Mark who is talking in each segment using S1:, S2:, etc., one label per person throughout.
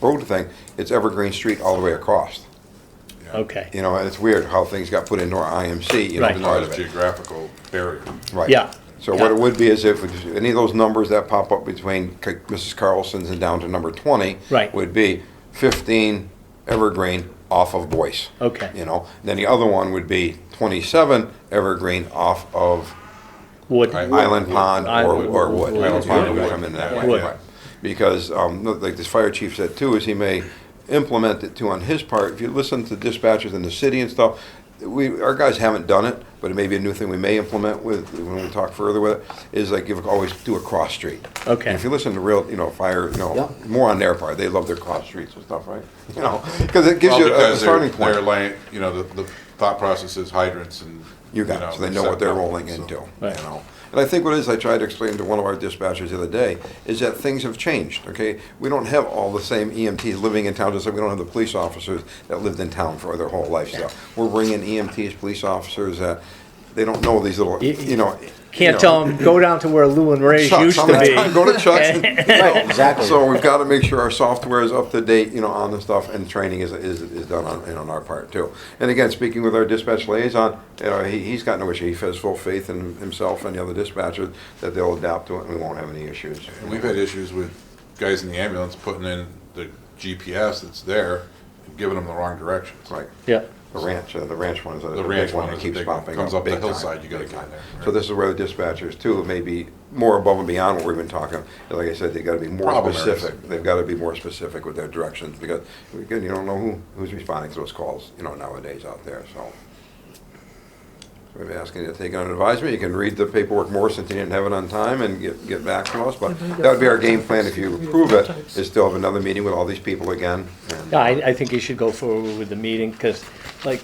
S1: road thing, it's Evergreen Street all the way across.
S2: Okay.
S1: You know, and it's weird how things got put into our IMC, you know,
S2: Right.
S1: the
S3: Not
S1: part
S3: a
S1: of it.
S3: geographical barrier.
S1: Right.
S2: Yeah.
S1: So what
S2: Yeah.
S1: it would be is if any of those numbers that pop up between C- Mrs. Carlson's and down to number 20.
S2: Right.
S1: Would be 15 Evergreen off of Boyce.
S2: Okay.
S1: You know, then the other one would be 27 Evergreen off of
S2: Wood.
S3: Right.
S1: Island Pond or,
S2: Island-
S1: or Wood.
S2: Wood.
S1: Island Pond
S3: Wood.
S1: would come in that way.
S2: Wood.
S1: right. Because, um, no, like this fire chief said too, is he may implement it too on his part. If you listen to dispatchers in the city and stuff, we, our guys haven't done it, but it may be a new thing we may implement with, when we talk further with it, is like give, always do a cross street.
S2: Okay.
S1: And If you listen to real, you know, fire, you
S4: Yeah.
S1: know, more on their part, they love their cross streets and stuff, right? You know, because it gives
S3: Well,
S1: you a- a
S3: because they're,
S1: starting point.
S3: they're laying, you know, the, the thought process is hydrants and.
S1: You got it, so they know what they're rolling into, you
S2: Right.
S1: know. And I think what it is, I tried to explain to one of our dispatchers the other day, is that things have changed, okay? We don't have all the same EMTs living in town, just like we don't have the police officers that lived in town for their whole lifestyle. We're bringing EMTs, police officers that, they don't know these little,
S2: You-
S1: you know.
S2: Can't
S1: you know,
S2: tell them, go down to where Lou and Ray's
S1: Chuck's
S2: used
S1: on that
S2: to
S1: time,
S2: be.
S1: Go to Chuck's. and-
S4: Right, exactly.
S1: So we've got to make sure our software is up to date, you know, on the stuff, and training is, is, is done on, and on our part too. And again, speaking with our dispatch liaison, you know, he, he's got no issue, he has full faith in himself and the other dispatchers that they'll adapt to it and we won't have any issues.
S3: And we've had issues with guys in the ambulance putting in the GPS that's there and giving them the wrong directions.
S1: Right,
S2: Yeah,
S1: the ranch, uh, the ranch one is a
S3: The
S1: big
S3: ranch
S1: one
S3: one
S1: that
S3: is a
S1: keeps
S3: big one.
S1: popping
S3: Comes up the
S1: big time,
S3: hillside, you gotta
S1: big
S3: get in
S1: time.
S3: there,
S1: So
S3: right.
S1: this is where the dispatchers too, may be more above and beyond what we've been talking, like I said, they gotta be more
S3: Problem areas.
S1: specific. They've got to be more specific with their directions because, again, you don't know who, who's responding to those calls, you know, nowadays out there, so. We've been asking you to take it on advisement. You can read the paperwork more since you didn't have it on time and get, get back to us. But that would be our game plan if you approve it, is still have another meeting with all these people again. and-
S2: Yeah, I, I think you should go forward with the meeting, because like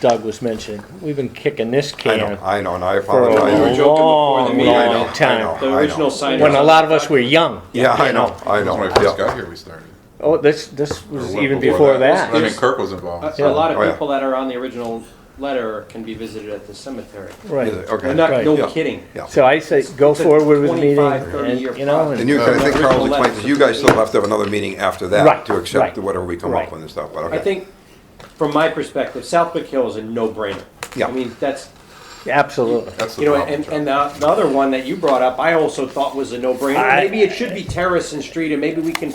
S2: Doug was mentioning, we've been kicking this
S1: I know,
S2: can
S1: I know, and I
S2: for a
S1: apologize.
S5: were
S2: long,
S5: joking before the
S2: long,
S5: meeting. I know,
S1: I
S2: time.
S1: know.
S5: The original sign.
S2: When a lot of us were young.
S1: Yeah, I
S2: you
S1: know, I know.
S3: When I first
S1: yeah.
S3: got here, we started.
S2: Oh, this, this
S3: Or
S2: was
S3: well
S2: even before
S3: I
S2: that.
S3: mean, Kirk was
S5: A
S3: involved.
S5: a lot
S1: Oh, yeah.
S5: of people that are on the original letter can be visited at the cemetery.
S1: Is
S2: Right.
S1: it? Okay.
S5: I'm not,
S2: Right.
S1: Yeah.
S5: no kidding.
S1: Yeah.
S2: So I say, go
S5: It's a
S2: forward with the meeting,
S5: 25, 30
S2: and,
S5: year
S2: you know,
S5: project.
S1: And you,
S2: and,
S1: I think Carl's
S5: uh, Original
S1: explained,
S5: letter.
S1: that you guys still have to have another meeting after that
S2: Right,
S1: to accept
S2: right,
S1: whatever we come up
S2: right.
S1: with and stuff, but
S5: I
S1: okay.
S5: think, from my perspective, Southwick Hill is a no-brainer.
S1: Yeah.
S5: I mean, that's,
S2: absolutely.
S3: That's the
S5: you know,
S3: problem.
S5: and,
S3: Chuck.
S5: and the, the other one that you brought up, I also thought was a no-brainer.
S2: I-
S5: Maybe it should be terrace and street, and maybe we can.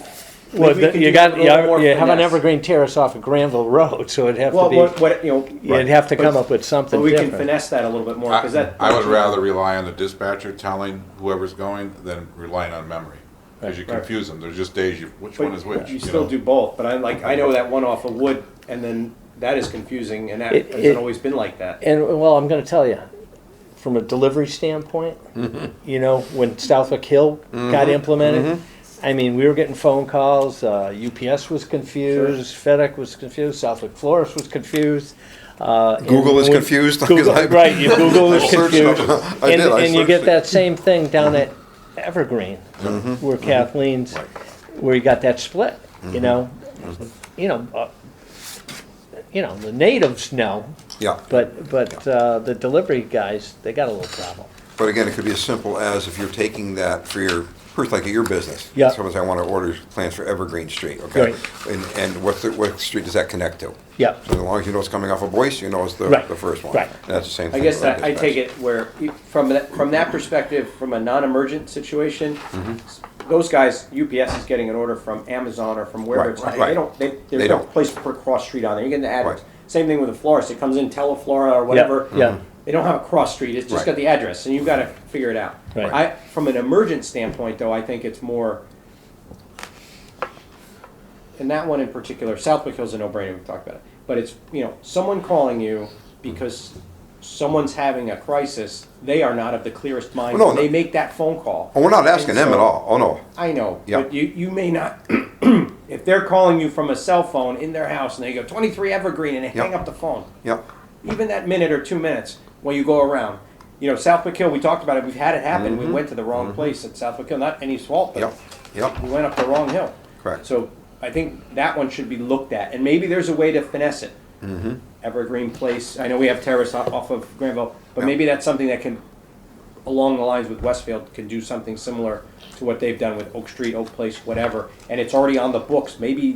S2: Well,
S5: maybe we
S2: the-
S5: can
S2: you
S5: do
S2: got,
S5: a little more
S2: you you have an
S5: finesse.
S2: evergreen terrace off of Granville Road, so it'd have
S5: Well,
S2: to
S5: what, what, you know.
S2: be, you'd have to come
S5: but-
S2: up with
S5: But
S2: something
S5: we can
S2: different.
S5: finesse that a little bit more, because
S3: I
S5: that.
S3: I would rather rely on the dispatcher telling whoever's going than relying on memory. Because you
S5: Right.
S3: confuse them. There's just days, you which
S5: But
S3: one is which?
S5: You
S3: you
S5: still
S3: know?
S5: do both, but I like, I know that one off of Wood, and then that is confusing, and that
S2: It-
S5: hasn't
S2: it-
S5: always been like that.
S2: And, well, I'm gonna tell you, from a delivery standpoint,
S1: Mm-hmm.
S2: you know, when Southwick Hill got implemented, I mean, we were getting phone calls, uh, UPS was confused, FedEx was confused, Southwick Florist was confused. uh, and
S1: Google is
S2: we-
S1: confused, 'cause
S2: Google-
S1: I-
S2: Right, you Google is
S1: I searched
S2: confused.
S1: it. I
S2: And,
S1: did, I
S2: and you
S1: searched
S2: get
S1: it. Mm-hmm.
S2: that same thing down at Evergreen, where Kathleen's, where you got that split,
S1: Mm-hmm.
S2: you know? You know, uh, you know, the natives know,
S1: Yeah,
S2: but, but uh, the delivery guys, they got a little problem.
S1: but again, it could be as simple as if you're taking that for your, first like your business.
S2: Yeah.
S1: Someone says, I want to order plans for Evergreen Street,
S2: Right.
S1: okay? And, and what's the, what street does that connect to?
S2: Yeah.
S1: So as long as you know it's coming off of Boyce, you know it's the,
S2: Right,
S1: the first one.
S2: right.
S1: And That's the same
S5: I
S1: thing.
S5: guess
S1: with our
S5: that, I take
S1: dispatch.
S5: it where, e, from that, from that perspective, from a non-emergent situation, those guys, UPS is getting an order from Amazon or from wherever
S1: Right,
S5: it's, at.
S1: right.
S5: they don't, they,
S1: They
S5: there's no
S1: don't.
S5: place to put a cross street on there, you're getting the address.
S1: Right.
S5: Same thing with a florist, it comes in Teleflora or whatever.
S2: yeah.
S5: They don't have a cross street, it's just
S1: Right.
S5: got the address, and you've gotta figure it out.
S2: Right.
S5: I, from an emergent standpoint, though, I think it's more, and that one in particular, Southwick Hill's a no-brainer, we've talked about it. But it's, you know, someone calling you because someone's having a crisis, they are not of the clearest mind.
S1: Well, no,
S5: when they
S1: no.
S5: make that phone call.
S1: Oh, we're not asking them
S5: And
S1: at
S5: so-
S1: all, oh, no.
S5: I know,
S1: Yeah.
S5: but you, you may not, if they're calling you from a cell phone in their house and they go twenty-three Evergreen and they hang
S1: Yeah.
S5: up the phone,
S1: Yep,
S5: even that minute or two minutes when you go around. You know, Southwick Hill, we talked about it, we've had it happen, we went to the wrong place at Southwick Hill, not any fault,
S1: Mm-hmm. yep,
S5: but
S1: yep.
S5: we went up the wrong hill.
S1: Correct.
S5: So I think that one should be looked at, and maybe there's a way to finesse it.
S1: Mm-hmm.
S5: Evergreen Place, I know we have terrace off off of Granville, but
S1: Yeah.
S5: maybe that's something that can along the lines with Westfield can do something similar to what they've done with Oak Street, Oak Place, whatever, and it's already on the books, maybe